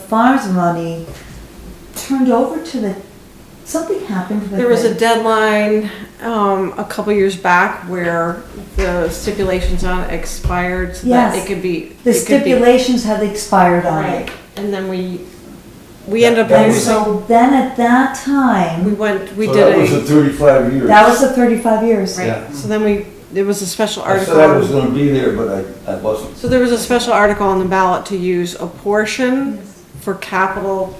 farms money turned over to the, something happened with it. There was a deadline, um, a couple years back where the stipulations on it expired so that Yes. it could be. The it could be- stipulations had expired on Right, it. and then we, we ended That up, And was- so so then at that we time, went, we So that was did the thirty-five years. that was the thirty-five years. a, right, yeah. so then we, there was a special I said I was article. gonna be there, but I, I wasn't. So there was a special article on the ballot to use a portion for capital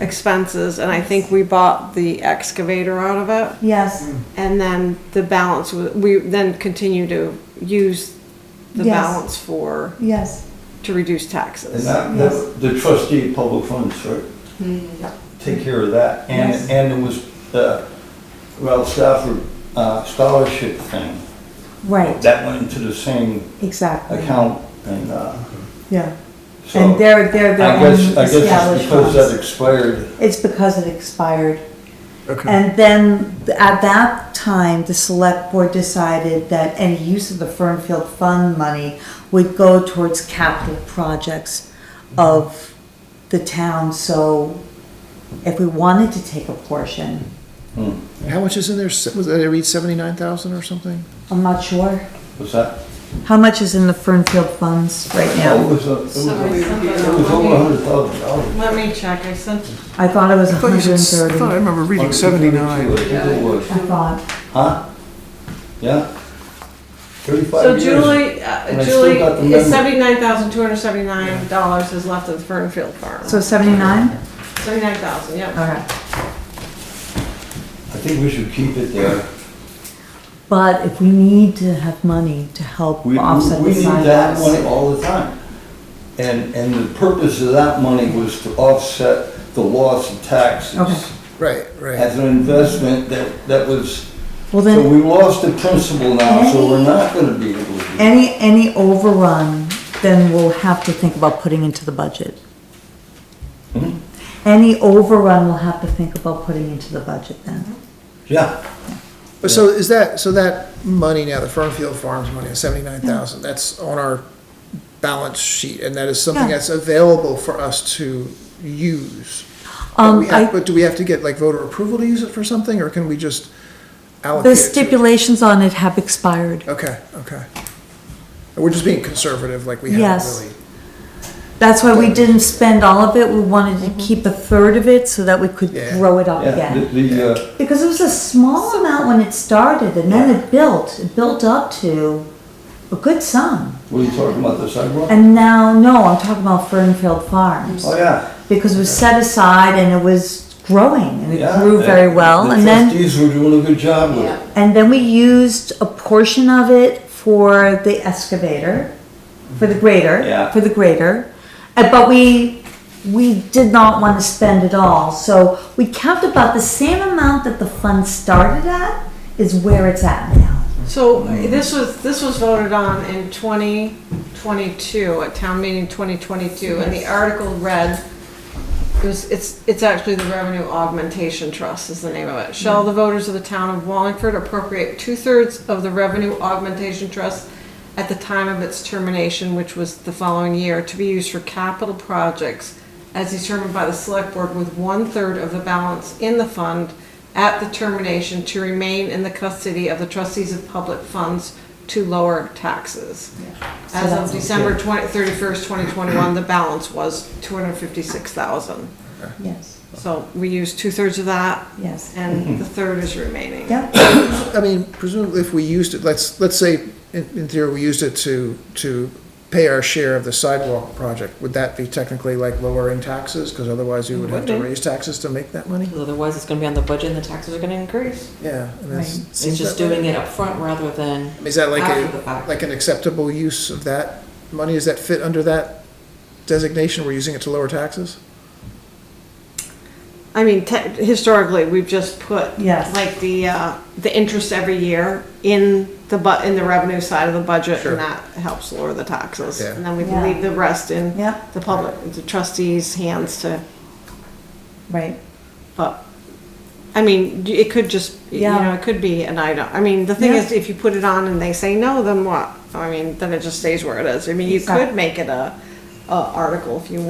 expenses, and I think we bought the excavator out of it. Yes, And then the balance, wa- we then continue to use the Yes. balance for, yes, to reduce And taxes. that, Yes. Mm-hmm. that- the trustee of public funds, right? Take care of that. And, Yes. and it was, uh, Ralph Stafford uh, scholarship thing. right, That went into the same exactly, account and, uh, yeah. so. And they're, they're I their own guess, I guess it's established because funds. that expired. It's because it expired. Okay. And then th- at that time, the select board decided that any use of the Fernfield Fund money would go towards capital projects of the town, so if we wanted to take a portion, Hmm. How much is in there? Se- Was, did I read seventy-nine thousand or something? I'm not sure. Was that? How much is in the Fernfield funds right Oh, It now? was, a- it was, So a- it's something it was on- over a hundred thousand dollars. Let me check, I sent, I thought it was I thought you hundred and said, I thought I thirty. remember reading seventy-nine. I think it was. I thought, Huh? Yeah? so Thirty-five years. Julie, and uh, I still Julie, got the is memo. seventy-nine thousand, two hundred and seventy-nine dollars is left of the Fernfield Farm. so seventy-nine? Seventy-nine thousand, yep. Alright. I think we should keep it there. But if we need to have money to help We, we offset we the need that sidewalks. money all the time. And, and the purpose of that money was to offset the loss of Okay. taxes Right, right. as an investment that, that was, Well then. so we lost the principal now, so we're not gonna be able to. do it. Any, any overrun, then we'll have to think about putting into the budget. Mhm. Mm-hmm. Any overrun, we'll have to think about putting into the budget then. Yeah, But so is that, so that money now, the Fernfield Farms money, seventy-nine thousand, that's on our balance sheet, and that is something Yeah. that's available for us to use. But Um, we have- I, But do we have to get like voter approval to use it for something, or can we just allocate the it? to- stipulations on it have expired. Okay, okay. We're just being conservative, like we haven't Yes. really. That's why we didn't spend all of it, we wanted to keep a third of it so that we could Yeah. grow it up yeah, again. the, the, uh, Because it was a small amount when it started and then it built, it built up to a good sum. what are you talking about, the sidewalk? And now, no, I'm talking about Fernfield Farms. Oh, yeah. because it was set aside and it was growing and it yeah. grew very The- well. And The then, trustees were doing a good job with it. and then we used a portion of it for the excavator, for the grader, Yeah. for the grader. Uh, But we, we did not want to spend it all, so we kept about the same amount that the fund started at is where it's at now. So this was, this was voted on in twenty twenty-two, at town meeting twenty twenty-two, and the article read, it was, it's, it's actually the Revenue Augmentation Trust is the name of it. Shall the voters of the town of Wallingford appropriate two-thirds of the Revenue Augmentation Trust at the time of its termination, which was the following year, to be used for capital projects as determined by the select board with one-third of the balance in the fund at the termination to remain in the custody of the trustees of public funds to lower taxes. As of December twenty, thirty-first, twenty twenty-one, the balance was two hundred and fifty-six thousand. Yes, So we use two-thirds of that, yes. Mm-hmm. and the third is remaining. Yep, I mean, presumably if we used it, let's, let's say, in, in theory, we used it to, to pay our share of the sidewalk project, would that be technically like lowering taxes? Because otherwise you would have to Would be. raise taxes to make that money? Because otherwise, it's gonna be on the budget and the taxes are gonna increase. Yeah. I mean, it's- It's seems just that way. doing it up front rather than, I mean, Is that like after the a, fact. like an acceptable use of that money? Does that fit under that designation? We're using it to lower taxes? I mean, te- historically, we've just put Yes. like the uh, the interest every year in the bu- in the revenue side of the budget, Sure. and that helps lower the taxes. Yeah. And then we Yeah. can leave the rest in Yeah. the public, the trustees' hands to. right. But I mean, y- it could just Yeah. you know it could be an item. I mean, the thing Yeah. is, if you put it on and they say no, then what? I mean, then it just stays where it is. I mean, you Exact- could make it a, a article if you